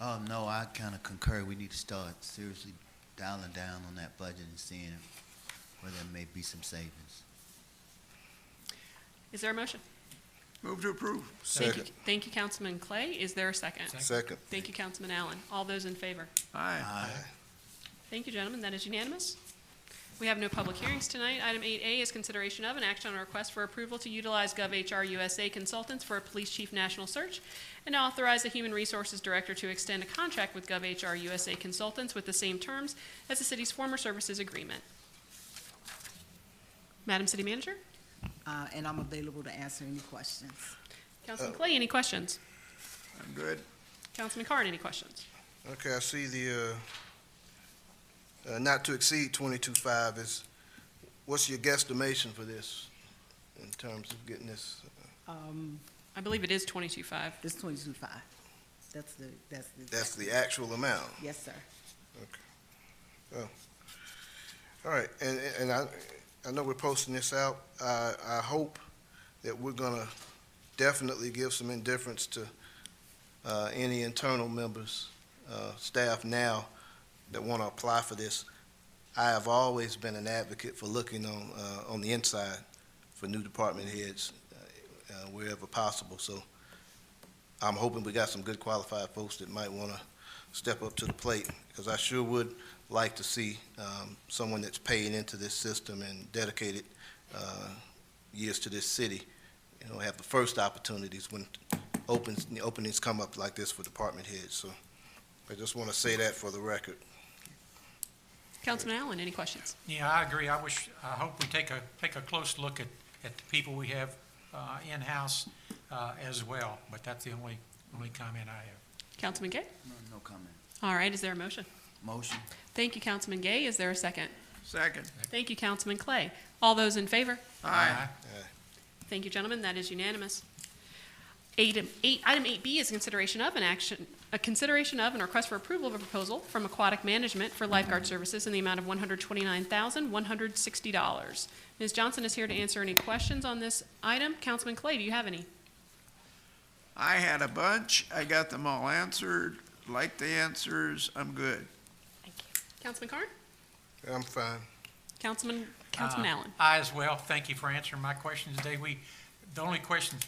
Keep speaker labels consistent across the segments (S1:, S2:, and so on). S1: Oh, no, I kind of concur. We need to start seriously dialing down on that budget and seeing where there may be some savings.
S2: Is there a motion?
S3: Move to approve.
S2: Thank you, Thank you, Councilman Clay. Is there a second?
S4: Second.
S2: Thank you, Councilman Allen. All those in favor?
S3: Aye.
S2: Thank you, gentlemen. That is unanimous. We have no public hearings tonight. Item 8A is consideration of an action on a request for approval to utilize GovHR USA Consultants for a police chief national search and authorize the Human Resources Director to extend a contract with GovHR USA Consultants with the same terms as the city's former services agreement. Madam City Manager?
S5: Uh, and I'm available to answer any questions.
S2: Councilman Clay, any questions?
S3: I'm good.
S2: Councilman Carn, any questions?
S4: Okay, I see the, uh, uh, not to exceed twenty-two five is, what's your guesstimation for this in terms of getting this?
S5: Um,
S2: I believe it is twenty-two-five.
S5: it's twenty-two five. That's the, that's the.
S4: That's the actual amount.
S5: Yes, sir.
S4: All right, and, and I, I know we're posting this out. I, I hope that we're gonna definitely give some indifference to, uh, any internal members, uh, staff now that wanna apply for this. I have always been an advocate for looking on, uh, on the inside for new department heads, uh, wherever possible, so I'm hoping we got some good qualified folks that might wanna step up to the plate, because I sure would like to see um, someone that's paying into this system and dedicated uh, years to this city, you know, have the first opportunities when opens, the openings come up like this for department heads. So I just want to say that for the record.
S2: Councilman Allen, any questions?
S6: Yeah, I agree. I wish, I hope we take a, take a close look at, at the people we have uh, in-house uh, as well, but that's the only, only comment I have.
S2: Councilman Gay?
S1: No, no comment.
S2: All right, is there a motion?
S1: Motion?
S2: Thank you, Councilman Gay. Is there a second?
S3: Second.
S2: Thank you, Councilman Clay. All those in favor?
S3: Aye.
S2: Thank you, gentlemen. That is unanimous. Item eight, item eight B is consideration of an action, a consideration of and request for approval of a proposal from Aquatic Management for lifeguard services in the amount of one hundred twenty-nine thousand, one hundred sixty dollars. Ms. Johnson is here to answer any questions on this item. Councilman Clay, do you have any?
S3: I had a bunch. I got them all answered, like the answers. I'm good.
S2: Councilman Carn?
S4: I'm fine.
S2: Councilman, Councilman
S6: Uh,
S2: Allen?
S6: I as well. Thank you for answering my question today. We, the only question,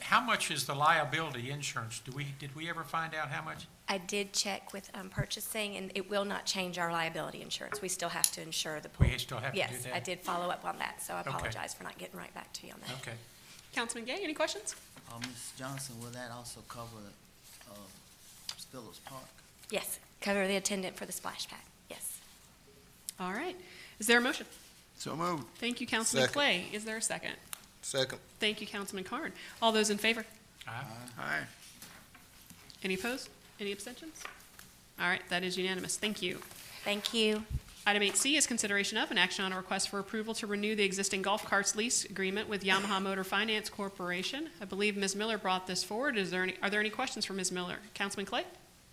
S6: how much is the liability insurance? Do we, did we ever find out how much?
S7: I did check with um, purchasing, and it will not change our liability insurance. We still have to insure the pool.
S6: We still have to do
S7: Yes,
S6: that?
S7: I did follow up on that, so I
S6: Okay.
S7: apologize for not getting right back to you on that.
S6: Okay.
S2: Councilman Gay, any questions?
S1: Uh, Ms. Johnson, will that also cover, uh, Phillips Park?
S7: Yes, cover the attendant for the splash pad, yes.
S2: All right. Is there a motion?
S3: So moved.
S2: Thank you, Councilman
S4: Second.
S2: Clay. Is there a second?
S4: Second.
S2: Thank you, Councilman Carn. All those in favor?
S6: Aye.
S3: Aye.
S2: Any opposed? Any abstentions? All right, that is unanimous. Thank you.
S7: Thank you.
S2: Item 8C is consideration of an action on a request for approval to renew the existing golf carts lease agreement with Yamaha Motor Finance Corporation. I believe Ms. Miller brought this forward. Is there any, are there any questions for Ms. Miller? Councilman Clay?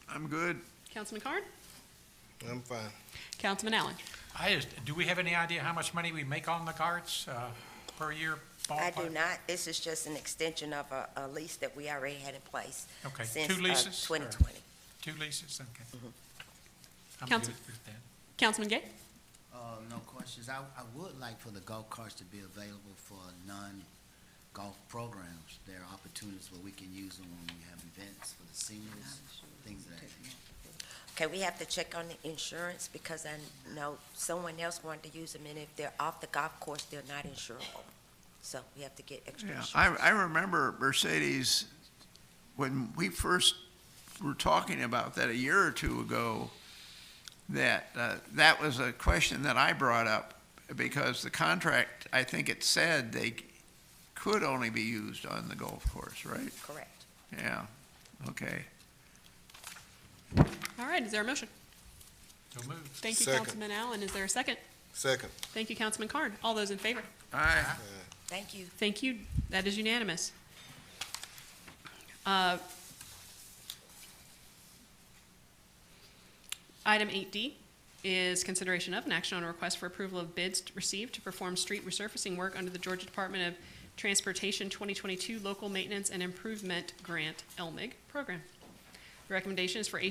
S3: I'm good.
S2: Councilman Carn?
S4: I'm fine.
S2: Councilman Allen?
S6: I just, do we have any idea how much money we make on the carts uh, per year?
S8: I do
S6: ballpark?
S8: not. This is just an extension of a, a lease that we already had in place
S6: Okay,
S8: since uh,
S6: two leases? or
S8: twenty twenty. Mm-hmm.
S6: Two leases, okay. I'm good
S2: Counsel-
S6: with that.
S2: Councilman Gay?
S1: Uh, no questions. I, I would like for the golf carts to be available for non-golf programs. There are opportunities where we can use them when we have events for the seniors, things of that nature.
S8: Okay, we have to check on the insurance because I know someone else wanted to use them and if they're off the golf course, they're not insurable. So we have to get extra
S3: Yeah,
S8: insurance.
S3: I, I remember Mercedes, when we first were talking about that a year or two ago, that, uh, that was a question that I brought up because the contract, I think it said they could only be used on the golf course, right?
S8: Correct.
S3: Yeah, okay.
S2: All right, is there a motion?
S6: So moved.
S2: Thank you,
S4: Second.
S2: Councilman Allen. Is there a second?
S4: Second.
S2: Thank you, Councilman Carn. All those in favor?
S3: Aye.
S8: Thank you.
S2: Thank you. That is unanimous. Uh, Item 8D is consideration of an action on a request for approval of bids received to perform street resurfacing work under the Georgia Department of Transportation 2022 Local Maintenance and Improvement Grant, LMIG, program. The recommendation is for